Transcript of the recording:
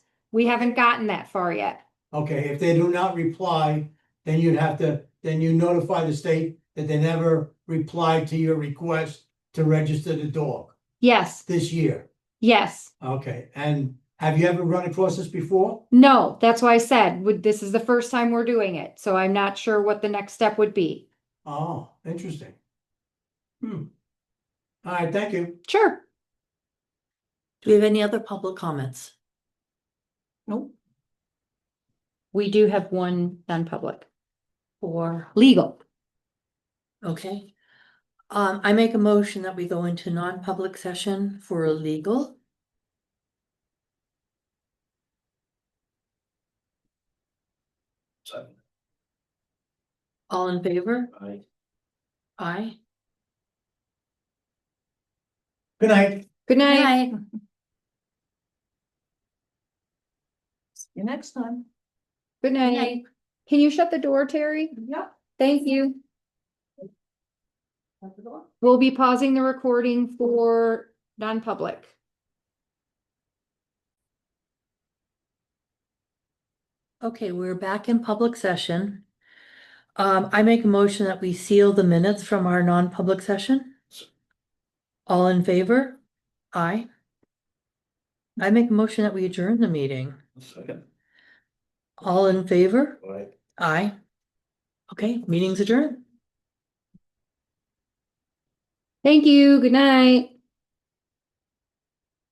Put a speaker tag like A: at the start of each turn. A: We haven't gotten that far yet.
B: Okay, if they do not reply, then you'd have to, then you notify the state that they never replied to your request to register the dog
A: Yes,
B: this year.
A: yes.
B: Okay, and have you ever run across this before?
A: No, that's why I said, would, this is the first time we're doing it, so I'm not sure what the next step would be.
B: Oh, interesting. Hmm. All right, thank you.
A: Sure.
C: Do we have any other public comments?
A: Nope. We do have one non-public or legal.
C: Okay. Um, I make a motion that we go into non-public session for legal.
D: Second.
C: All in favor? Aye.
B: Good night.
A: Good night.
E: See you next time.
A: Good night.
C: night.
A: Can you shut the door, Terry?
E: Yep.
A: Thank you.
E: Have a good one.
A: We'll be pausing the recording for non-public.
C: Okay, we're back in public session. Um, I make a motion that we seal the minutes from our non-public session. All in favor? Aye. I make a motion that we adjourn the meeting.
D: Second.
C: All in favor?
D: Aye.
C: Aye. Okay, meeting's adjourned.
A: Thank you. Good night.